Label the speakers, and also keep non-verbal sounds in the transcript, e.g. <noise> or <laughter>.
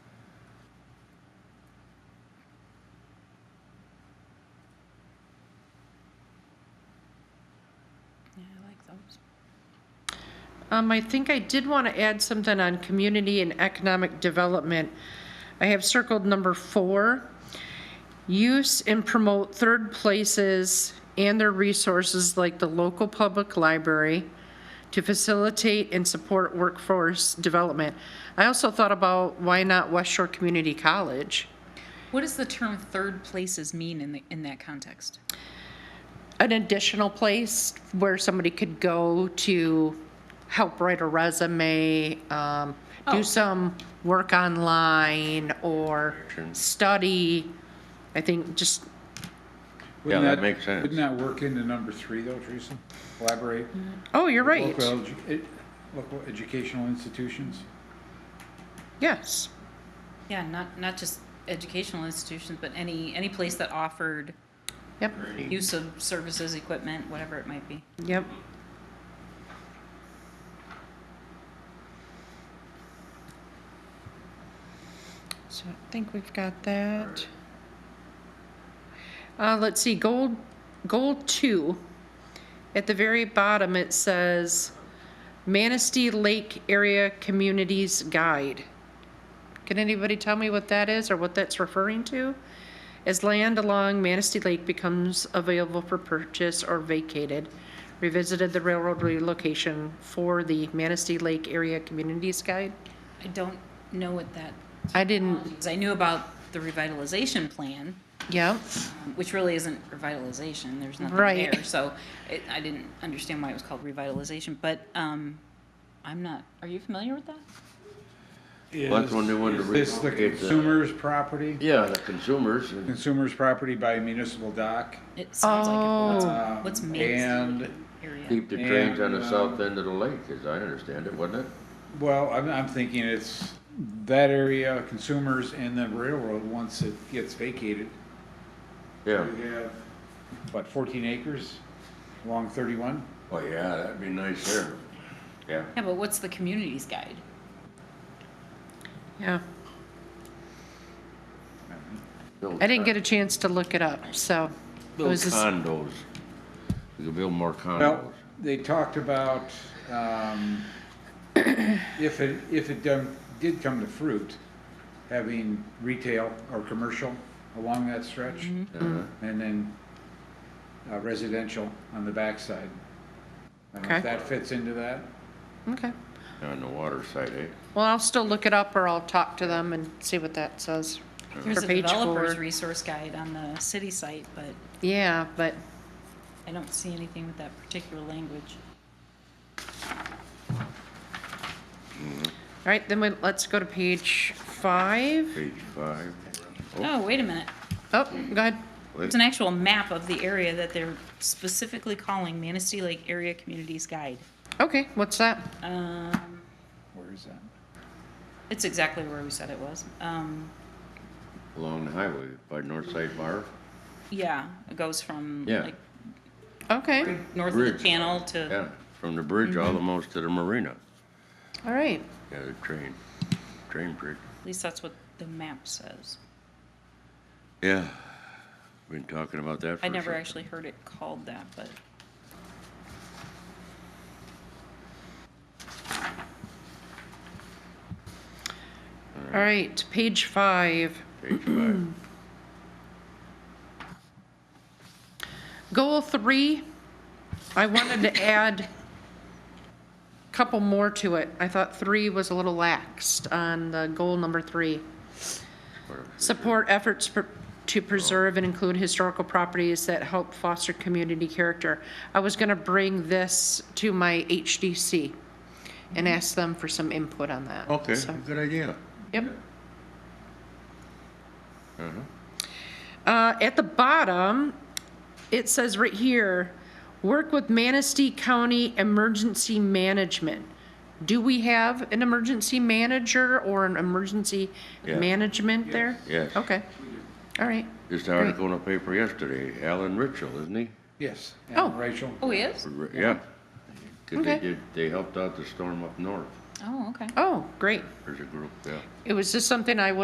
Speaker 1: systems.
Speaker 2: Um, I think I did want to add something on community and economic development. I have circled number four. Use and promote third places and their resources like the local public library to facilitate and support workforce development. I also thought about why not West Shore Community College?
Speaker 1: What does the term third places mean in the, in that context?
Speaker 2: an additional place where somebody could go to help write a resume, um,
Speaker 1: Oh.
Speaker 2: do some work online or study. I think just,
Speaker 3: Yeah,
Speaker 4: Wouldn't
Speaker 3: that makes sense.
Speaker 4: Wouldn't that work into number three though, Teresa? Collaborate?
Speaker 2: oh, you're right.
Speaker 4: Local, edu- ed- local educational institutions?
Speaker 2: Yes.
Speaker 1: Yeah, not, not just educational institutions, but any, any place that offered
Speaker 2: Yep,
Speaker 1: use of services, equipment, whatever it might be.
Speaker 2: yep. So I think we've got that. Uh, let's see, goal, goal two, at the very bottom, it says Manistee Lake Area Communities Guide. Can anybody tell me what that is or what that's referring to? As land along Manistee Lake becomes available for purchase or vacated, revisited the railroad relocation for the Manistee Lake Area Communities Guide?
Speaker 1: I don't know what that,
Speaker 2: I didn't,
Speaker 1: because I knew about the revitalization plan, um,
Speaker 2: yeah,
Speaker 1: which really isn't revitalization, there's nothing
Speaker 2: Right.
Speaker 1: there. So it, I didn't understand why it was called revitalization, but, um, I'm not, are you familiar with that?
Speaker 3: Well, that's when they wanted to uh,
Speaker 4: Is this the
Speaker 3: relocate the-
Speaker 4: consumer's property?
Speaker 3: Yeah, the consumers, and
Speaker 4: Consumer's property by municipal dock?
Speaker 1: It sounds like it,
Speaker 4: um,
Speaker 1: but what's, what's
Speaker 4: And,
Speaker 1: Manistee area?
Speaker 3: keep the trains on the
Speaker 4: And, uh,
Speaker 3: south end of the lake, as I understand it, wasn't it?
Speaker 4: well, I'm, I'm thinking it's that area, consumers and the railroad, once it gets vacated.
Speaker 3: Yeah.
Speaker 4: We have, what, fourteen acres along thirty-one?
Speaker 3: Oh, yeah, that'd be nice there. Yeah.
Speaker 1: Yeah, but what's the communities guide?
Speaker 2: yeah. I didn't get a chance to look it up, so. it
Speaker 3: Build
Speaker 2: was just-
Speaker 3: condos. We could build more condos.
Speaker 4: Well, they talked about, um, if it, if it done, did come to fruit, having retail or commercial along that stretch,
Speaker 2: Mm-hmm. mm.
Speaker 3: Uh-huh.
Speaker 4: and then uh, residential on the backside. I don't know if
Speaker 2: Okay.
Speaker 4: that fits into that.
Speaker 2: Okay.
Speaker 3: On the water side, eh?
Speaker 2: Well, I'll still look it up or I'll talk to them and see what that says.
Speaker 1: There's
Speaker 2: For
Speaker 1: a
Speaker 2: page
Speaker 1: developer's
Speaker 2: four.
Speaker 1: resource guide on the city site, but
Speaker 2: Yeah, but,
Speaker 1: I don't see anything with that particular language.
Speaker 2: all right, then we, let's go to page five.
Speaker 3: Page five.
Speaker 1: Oh, wait a minute.
Speaker 2: Oh, go ahead.
Speaker 1: It's an actual map of the area that they're specifically calling Manistee Lake Area Communities Guide.
Speaker 2: Okay, what's that?
Speaker 1: Um,
Speaker 4: Where is that?
Speaker 1: it's exactly where we said it was. Um,
Speaker 3: Along the highway by North Side Bar.
Speaker 1: yeah, it goes from
Speaker 3: Yeah.
Speaker 1: like
Speaker 2: Okay,
Speaker 1: north of
Speaker 3: Bridge.
Speaker 1: the channel to,
Speaker 3: Yeah, from the bridge
Speaker 2: Mm-hmm.
Speaker 3: almost to the marina.
Speaker 2: all right.
Speaker 3: Yeah, the train, train bridge.
Speaker 1: at least that's what the map says.
Speaker 3: Yeah. Been talking about that for
Speaker 1: I
Speaker 3: a
Speaker 1: never
Speaker 3: sec-
Speaker 1: actually heard it called that, but
Speaker 2: All right, page five.
Speaker 3: Page five.
Speaker 2: <clears throat> Goal three, I wanted to add a couple more to it. I thought three was a little laxed on the goal number three. Support efforts per- to preserve and include historical properties that help foster community character. I was gonna bring this to my HDC and ask them for some input on that.
Speaker 3: Okay,
Speaker 2: So,
Speaker 3: good idea.
Speaker 2: Yep. Mm-hmm. Uh, at the bottom, it says right here, work with Manistee County Emergency Management. Do we have an emergency manager or an emergency
Speaker 3: Yeah.
Speaker 2: management there?
Speaker 3: yes.
Speaker 2: Okay, all right.
Speaker 3: Just an article in the paper yesterday, Alan Ritchell, isn't he?
Speaker 4: Yes.
Speaker 2: Oh.
Speaker 4: And Rachel?
Speaker 1: oh, he is?
Speaker 3: R- Yeah. 'Cause they
Speaker 2: Okay.
Speaker 3: did, they helped out the storm up north,
Speaker 1: Oh, okay.
Speaker 2: Oh, great.
Speaker 3: there's a group, yeah.
Speaker 2: It was just something I was